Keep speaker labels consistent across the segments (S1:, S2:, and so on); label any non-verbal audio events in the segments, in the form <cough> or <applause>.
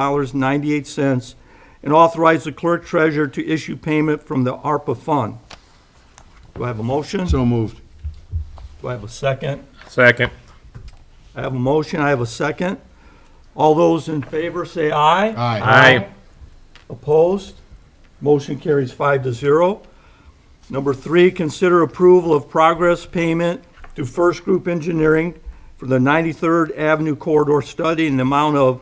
S1: $51,621.98 and authorize the clerk treasurer to issue payment from the ARPA fund. Do I have a motion?
S2: So moved.
S1: Do I have a second?
S3: Second.
S1: I have a motion, I have a second. All those in favor say aye.
S3: Aye.
S1: Opposed? Motion carries five to zero. Number three, consider approval of progress payment to First Group Engineering for the 93rd Avenue Corridor Study in the amount of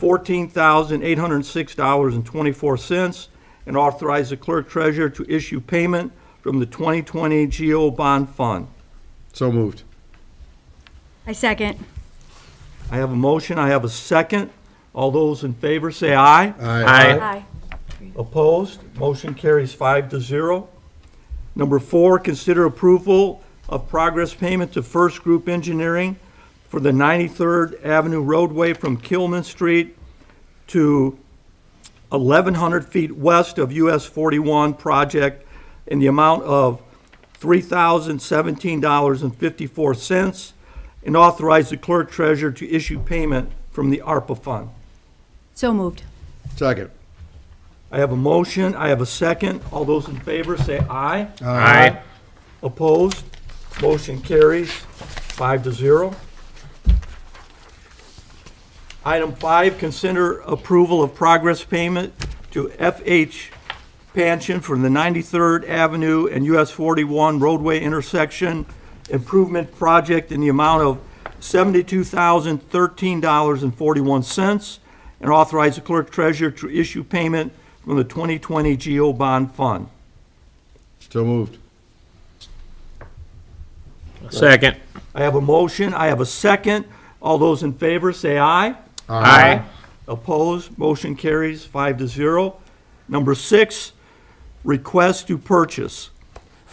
S1: $14,806.24 and authorize the clerk treasurer to issue payment from the 2020 GO Bond Fund.
S2: So moved.
S4: I second.
S1: I have a motion, I have a second. All those in favor say aye.
S3: Aye.
S4: Aye.
S1: Opposed? Motion carries five to zero. Number four, consider approval of progress payment to First Group Engineering for the 93rd Avenue roadway from Kilman Street to 1,100 feet west of US 41 project in the amount of $3,017.54 and authorize the clerk treasurer to issue payment from the ARPA fund.
S4: So moved.
S2: Second.
S1: I have a motion, I have a second. All those in favor say aye.
S3: Aye.
S1: Opposed? Motion carries five to zero. Item five, consider approval of progress payment to FH Pension from the 93rd Avenue and US 41 roadway intersection improvement project in the amount of $72,013.41 and authorize the clerk treasurer to issue payment from the 2020 GO bond fund.
S2: So moved.
S3: Second.
S1: I have a motion, I have a second. All those in favor, say aye.
S3: Aye.
S1: Opposed, motion carries five to zero. Number six, request to purchase.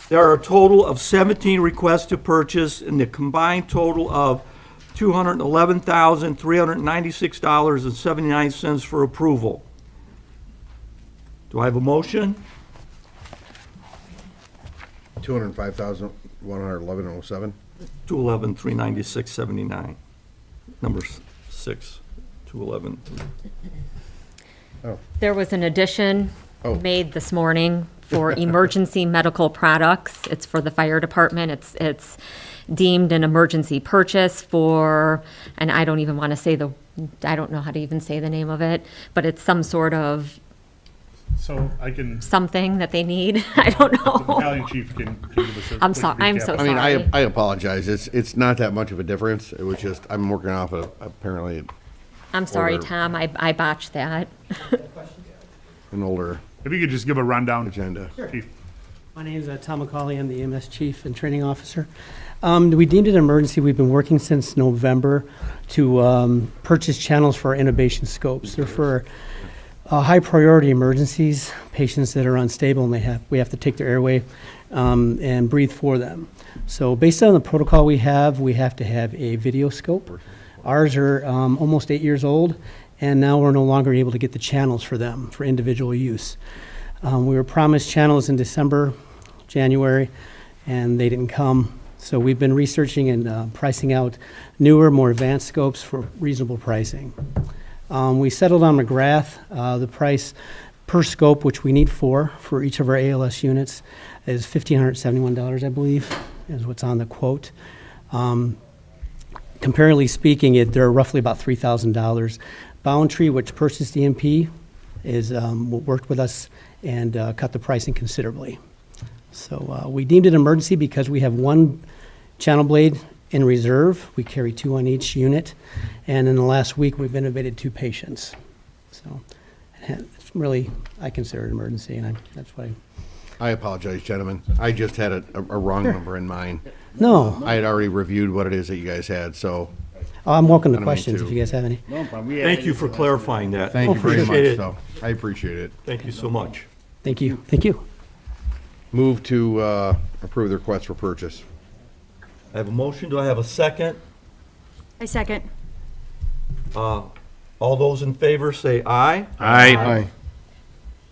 S1: There are a total of 17 requests to purchase and the combined total of $211,396.79 for approval. Do I have a motion?
S2: Two hundred and five thousand, one hundred and eleven oh seven.
S1: 211,396.79. Number s- six, 211.
S5: There was an addition
S2: Oh.
S5: made this morning for emergency medical products. It's for the fire department. It's, it's deemed an emergency purchase for, and I don't even want to say the, I don't know how to even say the name of it, but it's some sort of
S6: So I can,
S5: <laughs> something that they need. <laughs> I don't
S6: the
S5: know.
S6: <laughs> battalion chief can can give us a.
S5: Oh. I'm
S6: quick
S5: so- I'm so
S6: recap.
S2: I mean, I,
S5: Sorry.
S2: I apologize. It's, it's not that much of a difference. It was just, I'm working off of, apparently,
S5: I'm sorry,
S2: Or-
S5: Tom, I, I botched that.
S2: an older
S6: If you could just give a rundown.
S2: agenda.
S6: Chief.
S7: My name is uh, Tom McCauley. I'm the EMS Chief and Training Officer. Um, We deemed it an emergency. We've been working since November to um, purchase channels for our innovation scopes. They're for uh, high-priority emergencies, patients that are unstable and they have, we have to take their airway um, and breathe for them. So based on the protocol we have, we have to have a video scope. Ours are um, almost eight years old, and now we're no longer able to get the channels for them for individual use. Um, we were promised channels in December, January, and they didn't come. So we've been researching and uh, pricing out newer, more advanced scopes for reasonable pricing. Um, we settled on McGrath. Uh, the price per scope, which we need four for each of our ALS units, is $1,571, I believe, is what's on the quote. Um, comparatively speaking, it, they're roughly about three thousand dollars. Boundtree, which purchased EMP, is, um, w- worked with us and, uh, cut the pricing considerably. So, uh, we deemed it emergency because we have one channel blade in reserve. We carry two on each unit. And in the last week, we've intubated two patients. So, it's really, I consider it an emergency and I, that's why.
S2: I apologize, gentlemen. I just had a, a a wrong number in mind.
S7: No,
S2: I had already reviewed what it is that you guys had, so
S7: I'm welcome to
S2: me
S7: questions if
S2: too.
S7: you guys have any.
S1: Thank you for clarifying that.
S2: thank you very
S1: Appreciate
S2: much,
S1: it.
S2: though. I appreciate it.
S1: Thank you so much.
S7: Thank you, thank you.
S2: Move to, uh, approve the request for purchase.
S1: I have a motion, do I have a second?
S4: I second.
S1: All those in favor say aye.
S3: Aye.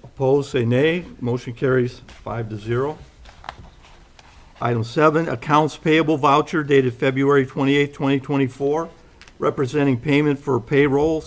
S1: Opposed, say nay. Motion carries five to zero. Item seven, accounts payable voucher dated February 28, 2024, representing payment for payroll,